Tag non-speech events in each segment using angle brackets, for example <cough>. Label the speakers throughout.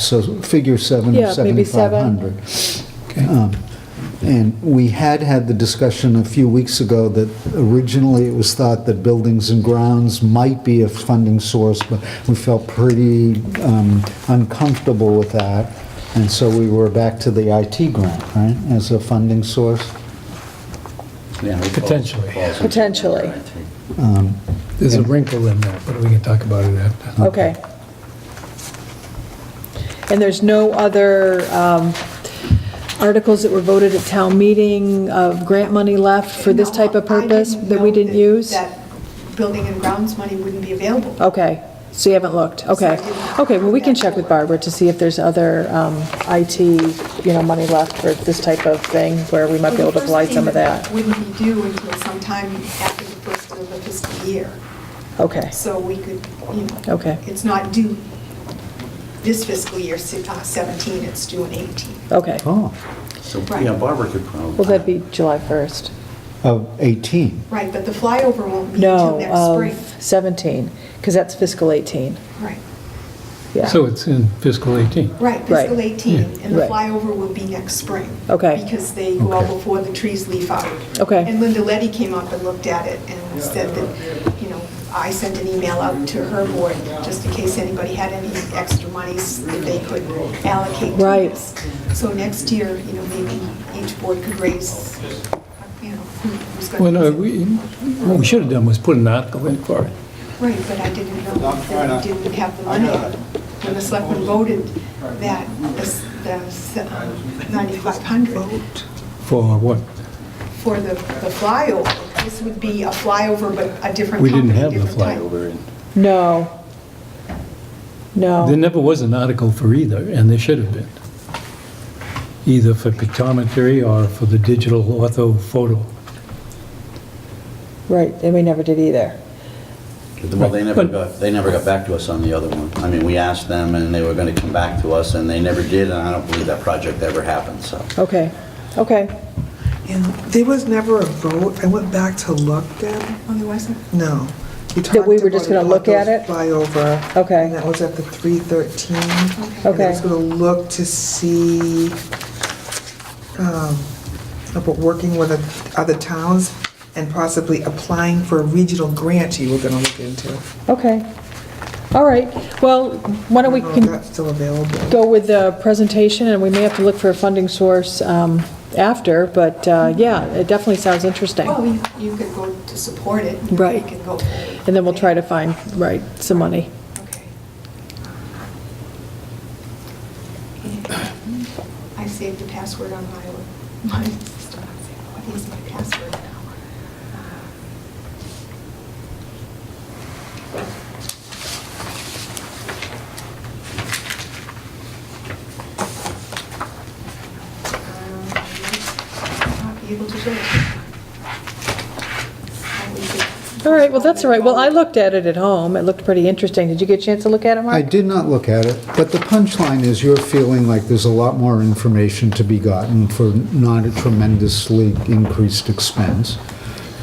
Speaker 1: So figure seven
Speaker 2: Yeah,
Speaker 1: of
Speaker 2: maybe
Speaker 1: 7,500. Um, And we had had the discussion a few weeks ago that originally it was thought that buildings and grounds might be a funding source, but we felt pretty um, uncomfortable with that, and so we were back to the IT grant, right, as a funding source?
Speaker 3: Potentially.
Speaker 2: Potentially.
Speaker 3: There's a wrinkle in that, but we can talk about it after.
Speaker 2: Okay. And there's no other um, articles that were voted at town meeting of grant money left for this type of
Speaker 4: No, I
Speaker 2: purpose
Speaker 4: didn't
Speaker 2: that we
Speaker 4: know
Speaker 2: didn't use? Oh,
Speaker 4: That building and grounds money wouldn't be available.
Speaker 2: Okay, so you haven't looked, okay. Okay, well, we can check with Barbara to see if there's other um, IT, you know, money left for this type of thing where we might be able to apply some of that.
Speaker 4: Well, the first payment Wouldn't be due until sometime after the first of the fiscal year,
Speaker 2: Okay,
Speaker 4: so we could, you know.
Speaker 2: Okay.
Speaker 4: It's not due this fiscal year, si- uh, 17, it's due in 18.
Speaker 2: okay.
Speaker 1: Oh,
Speaker 5: So,
Speaker 4: Right.
Speaker 5: yeah, Barbara could probably.
Speaker 2: Well, that'd be July 1st.
Speaker 1: of 18.
Speaker 4: Right, but the flyover won't be
Speaker 2: No,
Speaker 4: until next spring.
Speaker 2: of 17, because that's fiscal 18,
Speaker 4: Right,
Speaker 2: yeah.
Speaker 3: So it's in fiscal 18.
Speaker 4: right,
Speaker 2: Right.
Speaker 4: fiscal 18, and the
Speaker 2: Right.
Speaker 4: flyover will be next spring.
Speaker 2: Okay.
Speaker 4: Because they go out
Speaker 1: Okay.
Speaker 4: before the trees leaf out.
Speaker 2: Okay.
Speaker 4: And Linda Letty came up and looked at it and said that, you know, I sent an email out to her board, just in case anybody had any extra monies that they could allocate to
Speaker 2: Right.
Speaker 4: this. So next year, you know, maybe each board could raise, you know, who's
Speaker 3: Well,
Speaker 4: going to...
Speaker 3: no, we, what we should have done was put an article in for it.
Speaker 4: Right, but I didn't know that we didn't have the money. When the selectmen voted that, the s- the s- um, 9,500
Speaker 3: For what?
Speaker 4: for the the flyover, this would be a flyover, but a different
Speaker 3: We didn't
Speaker 4: company,
Speaker 3: have the
Speaker 4: different type.
Speaker 5: Flyover in.
Speaker 2: No.
Speaker 3: There
Speaker 2: No.
Speaker 3: never was an article for either, and there should have been. Either for pictometry or for the digital ortho photo.
Speaker 2: Right, and we never did either.
Speaker 5: Well, they never
Speaker 3: But-
Speaker 5: got, they never got back to us on the other one. I mean, we asked them, and they were going to come back to us, and they never did, and I don't believe that project ever happened, so.
Speaker 2: Okay, okay.
Speaker 6: And there was never a vote. I went back to look then.
Speaker 4: Oh, there wasn't?
Speaker 6: No.
Speaker 2: That we were just gonna look at it?
Speaker 6: Flyover.
Speaker 2: Okay.
Speaker 6: And that was at the 313. And
Speaker 2: Okay.
Speaker 6: I was going to look to see, um, about working with oth- other towns and possibly applying for a regional grant you were going to look into.
Speaker 2: Okay. All right, well, why don't we
Speaker 6: I don't know if
Speaker 2: con-
Speaker 6: that's still available.
Speaker 2: go with the presentation, and we may have to look for a funding source um, after, but uh, yeah, it definitely sounds interesting.
Speaker 4: Well, you- you could go to support it. and
Speaker 2: Right.
Speaker 4: We can go forward.
Speaker 2: And then we'll try to find, right, some money.
Speaker 4: Okay. I saved the password on my, my stuff. What is my password Uh, now? Um, I might Not be able to do it. I'll leave it.
Speaker 2: All right, well, that's all right. Well, I looked at it at home. It looked pretty interesting. Did you get a chance to look at it, Mark?
Speaker 1: I did not look at it, but the punchline is you're feeling like there's a lot more information to be gotten for not a tremendously increased expense.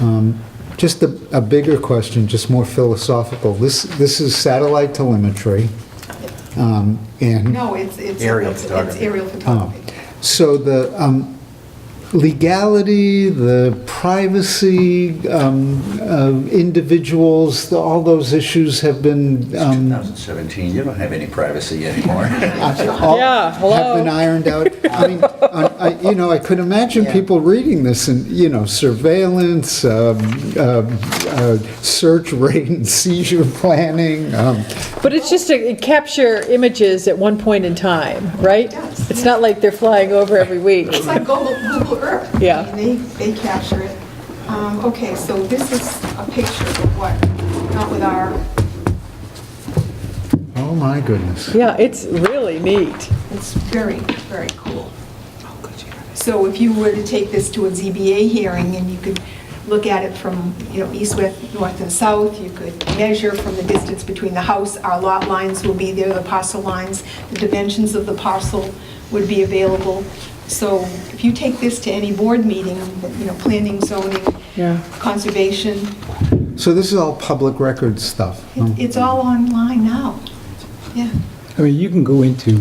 Speaker 1: Um, Just a, a bigger question, just more philosophical. This, this is satellite telemetry, um, and...
Speaker 4: No, it's, it's.
Speaker 5: Aerial
Speaker 4: it's- It's
Speaker 5: photography.
Speaker 4: aerial photography.
Speaker 1: Oh. So the um, legality, the privacy, um, of individuals, the- all those issues have been, um,
Speaker 5: 2017, you don't have any privacy anymore. <laughs>
Speaker 1: all-
Speaker 2: Yeah, hello.
Speaker 1: have been ironed out. I mean, I- I- you know, I could imagine people reading this and, you know, surveillance, um, um, uh, search, raid, and seizure planning. um,
Speaker 2: But it's just to capture images at one point in time, right?
Speaker 4: Yes.
Speaker 2: It's not like they're flying over every week.
Speaker 4: It's like Google, Google Earth. I
Speaker 2: Yeah.
Speaker 4: mean, They, they capture it. Um, okay, so this is a picture of what, not with our,
Speaker 1: Oh, my goodness.
Speaker 2: Yeah, it's really neat.
Speaker 4: it's very, very cool. So if you were to take this to a ZBA hearing and you could look at it from, you know, east, west, north and south, you could measure from the distance between the house, our lot lines will be there, the parcel lines, the dimensions of the parcel would be available. So if you take this to any board meeting, you know, planning, zoning,
Speaker 2: Yeah.
Speaker 4: conservation,
Speaker 1: So this is all public record stuff. huh?
Speaker 4: It- It's all online now, yeah.
Speaker 3: I mean, you can go into